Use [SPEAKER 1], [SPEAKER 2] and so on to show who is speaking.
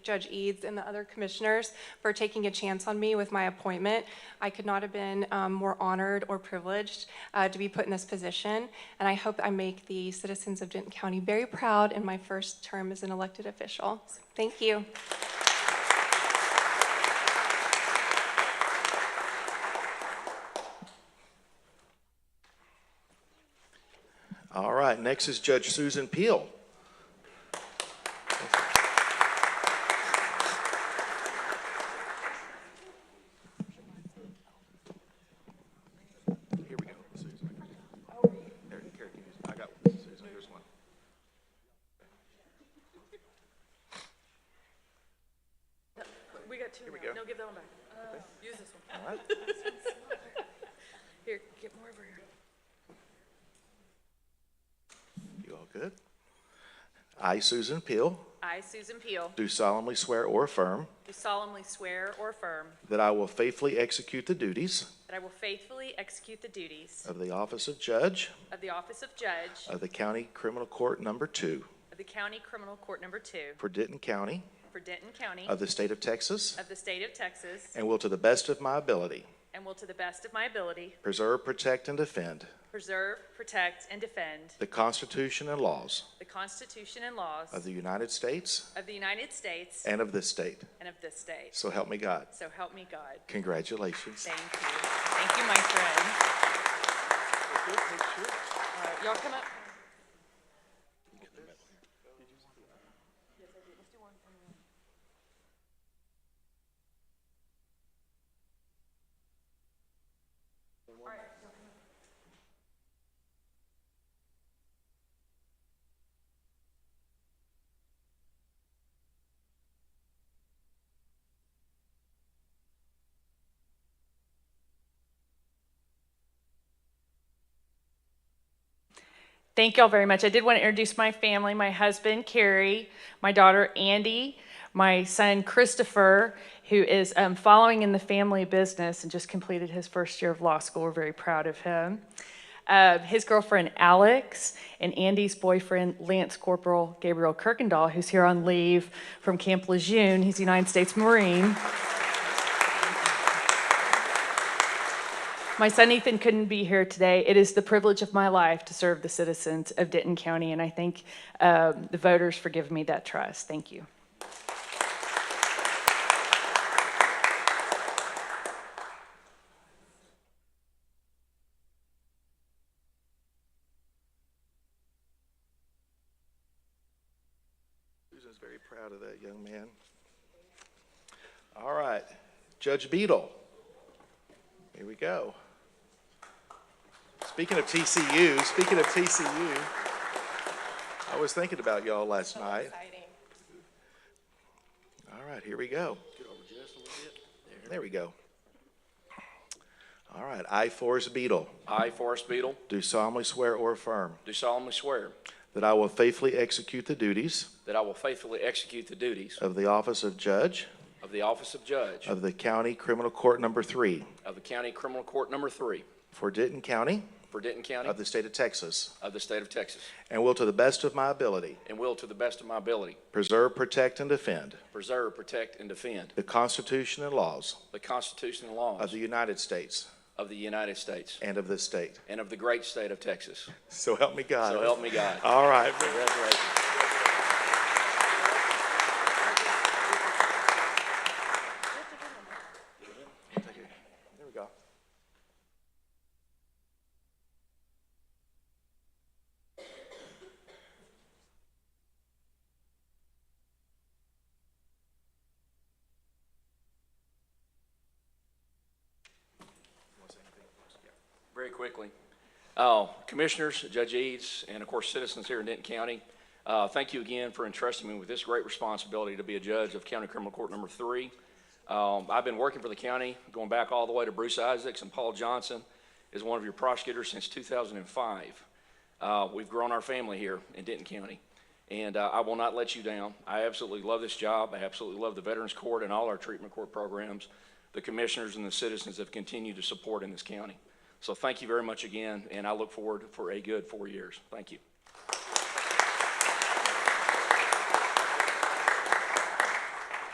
[SPEAKER 1] Judge Eads and the other commissioners for taking a chance on me with my appointment. I could not have been um, more honored or privileged uh, to be put in this position, and I hope I make the citizens of Denton County very proud in my first term as an elected official. So, Thank you.
[SPEAKER 2] All right, next is Judge Susan Peel. Here we go, Susan. There, here, can you- I got one, Susan, here's one.
[SPEAKER 3] We got two
[SPEAKER 2] go.
[SPEAKER 3] now. No, give that one back.
[SPEAKER 4] Uh,
[SPEAKER 3] Use this one.
[SPEAKER 2] All right.
[SPEAKER 3] Here, get more over here.
[SPEAKER 2] You all good? I, Susan Peel,
[SPEAKER 4] I, Susan Peel,
[SPEAKER 2] do solemnly swear or affirm
[SPEAKER 4] do solemnly swear or affirm
[SPEAKER 2] that I will faithfully execute the duties
[SPEAKER 4] that I will faithfully execute the duties
[SPEAKER 2] of the office of judge
[SPEAKER 4] of the office of Judge
[SPEAKER 2] of the County Criminal Court Number Two
[SPEAKER 4] of the County Criminal Court Number Two
[SPEAKER 2] for Denton County
[SPEAKER 4] for Denton County
[SPEAKER 2] of the state of Texas
[SPEAKER 4] of the State of Texas,
[SPEAKER 2] and will to the best of my ability
[SPEAKER 4] and will to the best of my ability
[SPEAKER 2] preserve, protect, and defend
[SPEAKER 4] preserve, protect, and defend
[SPEAKER 2] the Constitution and laws
[SPEAKER 4] the Constitution and laws
[SPEAKER 2] of the United States
[SPEAKER 4] of the United States
[SPEAKER 2] and of this state.
[SPEAKER 4] and of this state.
[SPEAKER 2] So help me God.
[SPEAKER 4] So help me God.
[SPEAKER 2] Congratulations.
[SPEAKER 4] Thank you. Thank you, my friend. All right, Y'all come up.
[SPEAKER 5] Thank y'all very much. I did want to introduce my family, my husband, Carrie, my daughter, Andy, my son, Christopher, who is um, following in the family business and just completed his first year of law school. We're very proud of him. Uh, his girlfriend, Alex, and Andy's boyfriend, Lance Corporal Gabriel Kirkendall, who's here on leave from Camp Lejeune. He's a United States Marine. My son Ethan couldn't be here today. It is the privilege of my life to serve the citizens of Denton County, and I thank um, the voters for giving me that trust. Thank you.
[SPEAKER 2] Susan's very proud of that young man. All right, Judge Beadle. Here we go. Speaking of TCU, speaking of TCU, I was thinking about y'all last night. All right, here we go. There we go. All right, I, Forrest Beadle,
[SPEAKER 6] I, Forrest Beadle,
[SPEAKER 2] do solemnly swear or affirm
[SPEAKER 6] do solemnly swear
[SPEAKER 2] that I will faithfully execute the duties
[SPEAKER 6] that I will faithfully execute the duties
[SPEAKER 2] of the office of judge
[SPEAKER 6] of the office of judge
[SPEAKER 2] of the County Criminal Court Number Three
[SPEAKER 6] of the County Criminal Court Number Three
[SPEAKER 2] for Denton County
[SPEAKER 6] for Denton County
[SPEAKER 2] of the state of Texas,
[SPEAKER 6] of the state of Texas,
[SPEAKER 2] and will to the best of my ability
[SPEAKER 6] and will to the best of my ability
[SPEAKER 2] preserve, protect, and defend
[SPEAKER 6] preserve, protect, and defend
[SPEAKER 2] the Constitution and laws
[SPEAKER 6] the Constitution
[SPEAKER 2] of
[SPEAKER 6] and laws
[SPEAKER 2] the United States
[SPEAKER 6] of the United States
[SPEAKER 2] and of this state.
[SPEAKER 6] and of the great state of Texas.
[SPEAKER 2] So help me God.
[SPEAKER 6] So help me God.
[SPEAKER 2] All right.
[SPEAKER 6] Congratulations.
[SPEAKER 2] There we go.
[SPEAKER 6] Very quickly, uh, Commissioners, Judge Eads, and of course, citizens here in Denton County, uh, thank you again for entrusting me with this great responsibility to be a judge of County Criminal Court Number Three. Um, I've been working for the county, going back all the way to Bruce Isaacs and Paul Johnson, as one of your prosecutors since 2005. Uh, We've grown our family here in Denton County, and uh, I will not let you down. I absolutely love this job. I absolutely love the Veterans Court and all our treatment court programs, the commissioners and the citizens have continued to support in this county. So thank you very much again, and I look forward for a good four years. Thank you.